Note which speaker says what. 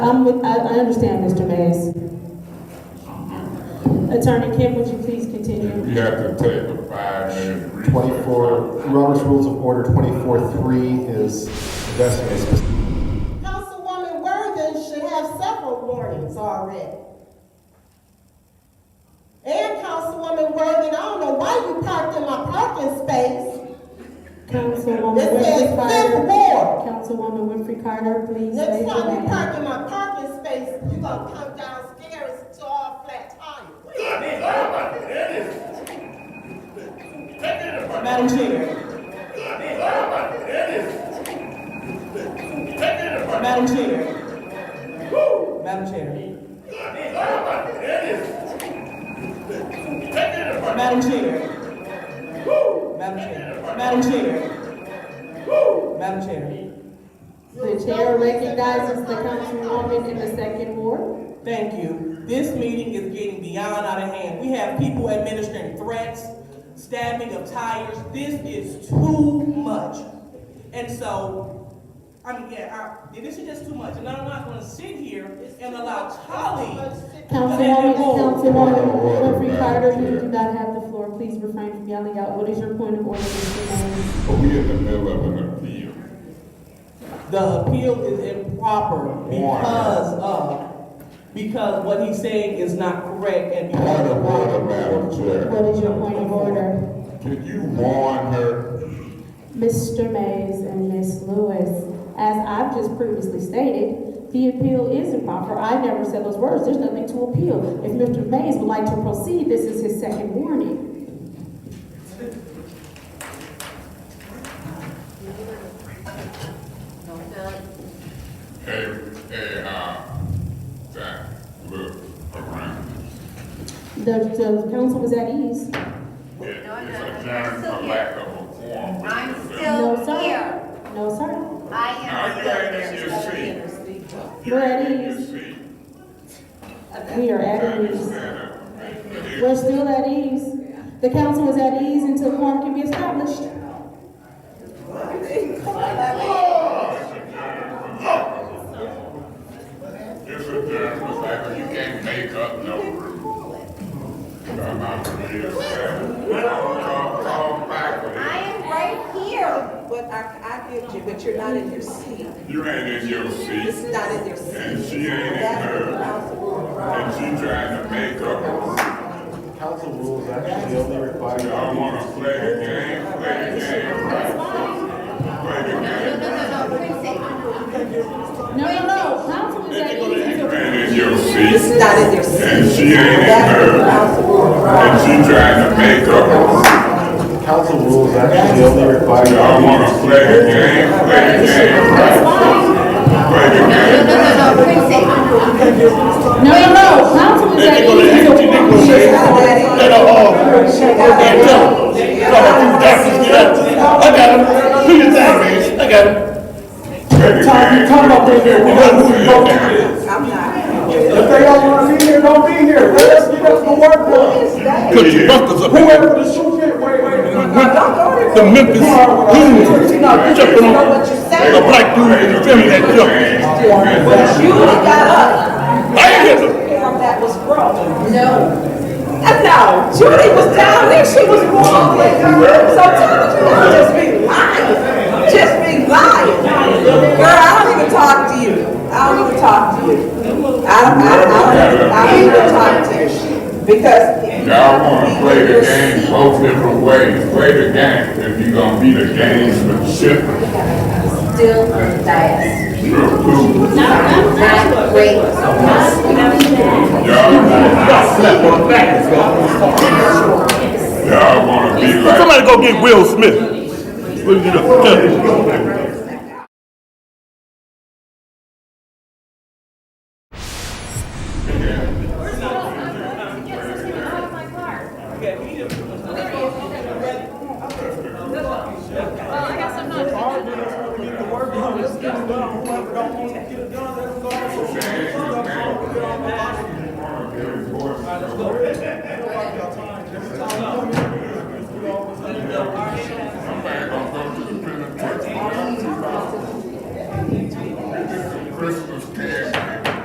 Speaker 1: I'm with, I, I understand, Mr. Mays. Attorney Kim, would you please continue?
Speaker 2: You have to take a five-minute recess.
Speaker 3: 24, Robert's Rules of Order 24-3 is investigating specific
Speaker 4: Councilwoman Worthing should have several warnings already. And Councilwoman Worthing, I don't know why you parked in my parking space.
Speaker 1: Councilwoman
Speaker 4: This
Speaker 1: Winfrey
Speaker 4: is fifth
Speaker 1: Carter.
Speaker 4: ward.
Speaker 1: Councilwoman Winfrey Carter, please raise
Speaker 4: Next
Speaker 1: your
Speaker 4: time you
Speaker 1: hand.
Speaker 4: park in my parking space, you gonna come downstairs to all flat tires.
Speaker 5: Madam Chair. Madam Chair. Madam Chair. Madam Chair. Madam Chair. Madam Chair. Madam Chair.
Speaker 1: The chair recognizes the councilwoman in the second ward.
Speaker 5: Thank you. This meeting is getting beyond out of hand. We have people administering threats, stabbing of tires. This is too much. And so, I mean, yeah, I, this is just too much. And I'm not gonna sit here and allow colleagues.
Speaker 1: Councilwoman, Councilwoman
Speaker 2: Order,
Speaker 1: Winfrey
Speaker 2: Madam
Speaker 1: Carter, you
Speaker 2: Chair.
Speaker 1: do not have the floor. Please refrain from yelling out. What is your point of order, Mr. Mays?
Speaker 2: But we in the middle of an appeal.
Speaker 5: The appeal is improper because of, because what he's saying is not correct and
Speaker 2: Point
Speaker 5: because
Speaker 2: of order, Madam Chair.
Speaker 1: What is your point of order?
Speaker 2: Can you warn her?
Speaker 1: Mr. Mays and Ms. Lewis, as I've just previously stated, the appeal is improper. I never said those words. There's nothing to appeal. If Mr. Mays would like to proceed, this is his second warning.
Speaker 2: Hey, hey, uh, that look around.
Speaker 1: The, the council was at ease.
Speaker 2: It- It's
Speaker 6: No, no, no,
Speaker 2: a
Speaker 6: I'm
Speaker 2: giant
Speaker 6: still
Speaker 2: for
Speaker 6: here.
Speaker 2: lack of a quorum.
Speaker 6: I'm
Speaker 1: No,
Speaker 6: still
Speaker 1: sir.
Speaker 6: here.
Speaker 1: No, sir.
Speaker 6: I
Speaker 2: Now,
Speaker 6: am
Speaker 2: you ain't in
Speaker 6: still
Speaker 2: your
Speaker 6: here.
Speaker 2: seat. You
Speaker 1: You're at
Speaker 2: ain't in your
Speaker 1: ease.
Speaker 2: seat.
Speaker 1: We are
Speaker 2: I
Speaker 1: at ease.
Speaker 2: understand that.
Speaker 1: We're still at ease. The council is at ease until quorum can be established.
Speaker 2: It's a general fact, you can't make up no rule. I'm out of here, man. Call, call back with
Speaker 6: I
Speaker 2: it.
Speaker 6: am right here.
Speaker 7: But I, I get you, but you're not in your seat.
Speaker 2: You ain't in your
Speaker 7: This
Speaker 2: seat,
Speaker 7: is not in your seat.
Speaker 2: and she ain't in
Speaker 7: That's the
Speaker 2: hers,
Speaker 7: council rule.
Speaker 2: and she trying to make up a rule.
Speaker 3: council rules actually only require.
Speaker 2: I don't wanna play the game, play the game, right? Play the
Speaker 6: No,
Speaker 2: game.
Speaker 6: no, no,
Speaker 1: No, no, no. Council
Speaker 6: precinct.
Speaker 1: is at ease
Speaker 2: You
Speaker 1: until.
Speaker 2: ain't in your
Speaker 7: This
Speaker 2: seat,
Speaker 7: is not in your seat.
Speaker 2: and she ain't in
Speaker 7: That's the
Speaker 2: hers,
Speaker 7: council rule.
Speaker 2: and she trying to make up a rule.
Speaker 3: Council rules actually only
Speaker 2: I
Speaker 3: require.
Speaker 2: don't wanna play the game, play the game, right? Play the game.
Speaker 6: No, no, no, precinct.
Speaker 1: No, no, no. Council is at ease until quorum can be
Speaker 7: She's not
Speaker 1: established.
Speaker 7: that in. Let her off. She got that.
Speaker 2: Talk, talk about this here, we gotta move it.
Speaker 7: I'm not.
Speaker 8: If they don't wanna be here, don't be here, let us get us to work
Speaker 7: Who
Speaker 8: done.
Speaker 7: is that?
Speaker 9: Put your buckles up.
Speaker 8: Whoever the shoe fit, wait, wait, wait.
Speaker 7: Don't go there.
Speaker 9: The Memphis Blues. Jumping
Speaker 7: You know
Speaker 9: on
Speaker 7: what you're
Speaker 9: a
Speaker 7: saying.
Speaker 9: black dude in the film that jumped.
Speaker 7: But you got up.
Speaker 9: I ain't get them.
Speaker 7: Form that was wrong. No. And no, Judy was down there, she was wrong. So Thomas, you don't just be lying. Just be lying. Girl, I don't even talk to you. I don't even talk to you. I don't, I don't, I don't, I don't even talk to you. Because.
Speaker 2: Y'all wanna play the game both different ways, play the game, if you gonna be the gamesmanship,
Speaker 6: Still biased.
Speaker 2: you're a fool.
Speaker 6: Not great.
Speaker 2: Y'all wanna,
Speaker 9: Slap on the back.
Speaker 2: y'all wanna be like,
Speaker 9: Somebody go get Will Smith. We'll get up.
Speaker 6: Oh
Speaker 2: change the game.